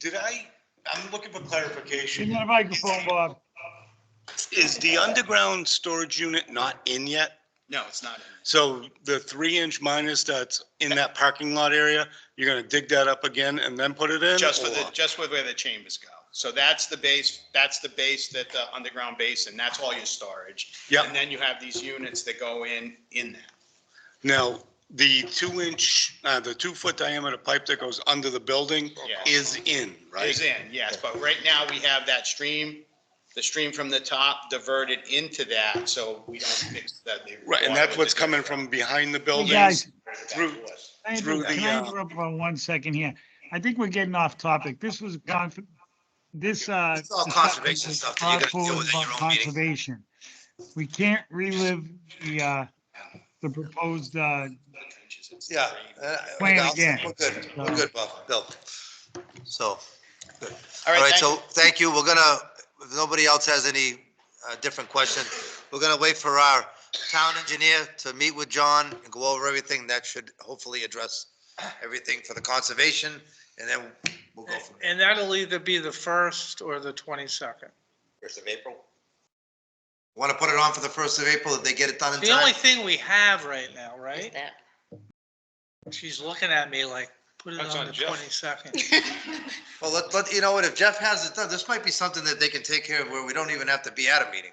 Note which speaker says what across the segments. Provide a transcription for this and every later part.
Speaker 1: Did I, I'm looking for clarification.
Speaker 2: Give me the microphone, Bob.
Speaker 1: Is the underground storage unit not in yet?
Speaker 3: No, it's not. in there.
Speaker 1: So the three inch minus that's in that parking lot area, you're gonna dig that up again and then put it in?
Speaker 3: Just for the,
Speaker 1: or-
Speaker 3: just with where the chambers go. So that's the base, that's the base that the underground base and that's all your storage.
Speaker 1: Yep.
Speaker 3: And then you have these units that go in, in that.
Speaker 1: Now, the two inch, uh, the two foot diameter pipe that goes under the building
Speaker 3: Yeah.
Speaker 1: is in,
Speaker 3: Is
Speaker 1: right?
Speaker 3: in, yes, but right now we have that stream, the stream from the top diverted into that, so we don't mix that. the
Speaker 1: Right, and
Speaker 3: water
Speaker 1: that's
Speaker 3: with
Speaker 1: what's
Speaker 3: the
Speaker 1: coming from behind the
Speaker 2: guys.
Speaker 1: buildings through,
Speaker 2: Can I
Speaker 1: Through
Speaker 2: inter-
Speaker 1: the,
Speaker 2: can I
Speaker 1: uh,
Speaker 2: interrupt for one second here? I think we're getting off topic. This was conf, this, uh.
Speaker 4: It's all
Speaker 2: this
Speaker 4: conservation
Speaker 2: was
Speaker 4: stuff that you gotta deal
Speaker 2: thoughtful
Speaker 4: with at your
Speaker 2: about
Speaker 4: own meeting.
Speaker 2: Conservation. We can't relive the, uh, the proposed, uh,
Speaker 3: trenches. It's the
Speaker 4: Yeah.
Speaker 3: drain.
Speaker 4: uh,
Speaker 2: Plan
Speaker 4: yeah,
Speaker 2: again.
Speaker 4: We're good, we're good, Bob, Bill. So,
Speaker 3: All
Speaker 4: all
Speaker 3: right,
Speaker 4: right,
Speaker 3: thank you.
Speaker 4: so thank you. We're gonna, if nobody else has any uh, different question, we're gonna wait for our town engineer to meet with John and go over everything. That should hopefully address everything for the conservation, and then we'll go from there.
Speaker 5: And that'll either be the first or the twenty-second.
Speaker 4: First of April? Want to put it on for the first of April, if they get it done in
Speaker 5: The only
Speaker 4: time?
Speaker 5: thing we have right now, right?
Speaker 6: that.
Speaker 5: She's looking at me like, put it
Speaker 3: That's
Speaker 5: on
Speaker 3: on
Speaker 5: the
Speaker 3: Jeff.
Speaker 5: twenty-second.
Speaker 4: Well, let, let, you know what, if Jeff has it done, this might be something that they can take care of where we don't even have to be at a meeting.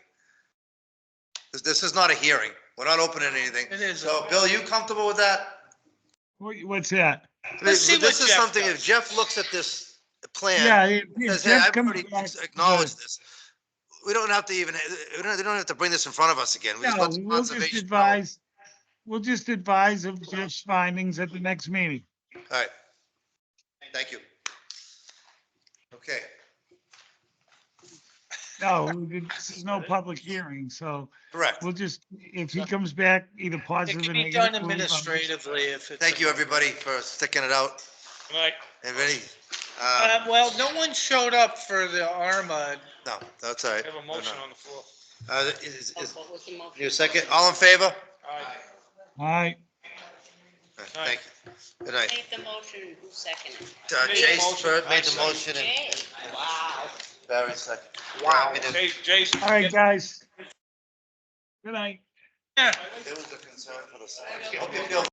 Speaker 4: This, this is not a hearing. We're not opening anything.
Speaker 5: It is.
Speaker 4: So, Bill, you comfortable with that?
Speaker 2: what- what's that?
Speaker 5: Let's see
Speaker 4: This
Speaker 5: what
Speaker 4: is
Speaker 5: Jeff
Speaker 4: something, if
Speaker 5: does.
Speaker 4: Jeff looks at this
Speaker 2: Yeah.
Speaker 4: plan,
Speaker 2: if- if
Speaker 4: says, hey,
Speaker 2: Jeff
Speaker 4: I've
Speaker 2: comes
Speaker 4: already
Speaker 2: back-
Speaker 4: acknowledged this. We don't have to even, eh, we don't, they don't have to bring this in front of us again. We just
Speaker 2: No,
Speaker 4: let the
Speaker 2: we'll just
Speaker 4: conservation know.
Speaker 2: advise, we'll just advise of Jeff's findings at the next meeting.
Speaker 4: All right. Thank you. Okay.
Speaker 2: No, this is no public hearing, so
Speaker 4: Correct.
Speaker 2: we'll just, if he comes back either
Speaker 5: It
Speaker 2: positive or
Speaker 5: can
Speaker 2: negative.
Speaker 5: be done
Speaker 2: we'll leave on this.
Speaker 5: administratively if it's.
Speaker 4: Thank you, everybody, for sticking it out. And um, ready?
Speaker 5: Uh,
Speaker 4: Uh,
Speaker 5: well, no one showed up for the ARMA.
Speaker 4: no, that's all right.
Speaker 7: I have a motion on the floor.
Speaker 4: Uh, is,
Speaker 6: Oh,
Speaker 4: is,
Speaker 6: what was the motion?
Speaker 4: your second, all in favor? All
Speaker 2: All right.
Speaker 4: right, Thank you. Good night.
Speaker 6: Made the motion, who seconded?
Speaker 4: Uh,
Speaker 7: Made the
Speaker 4: Chase
Speaker 7: motion.
Speaker 4: Bird made the
Speaker 7: I
Speaker 4: motion and
Speaker 6: Jay, wow.
Speaker 4: Barry second.
Speaker 7: Wow.
Speaker 4: It
Speaker 7: Hey, Jason.
Speaker 2: All right, guys. Good night.
Speaker 5: Yeah.
Speaker 4: was a concern for the. Hope you feel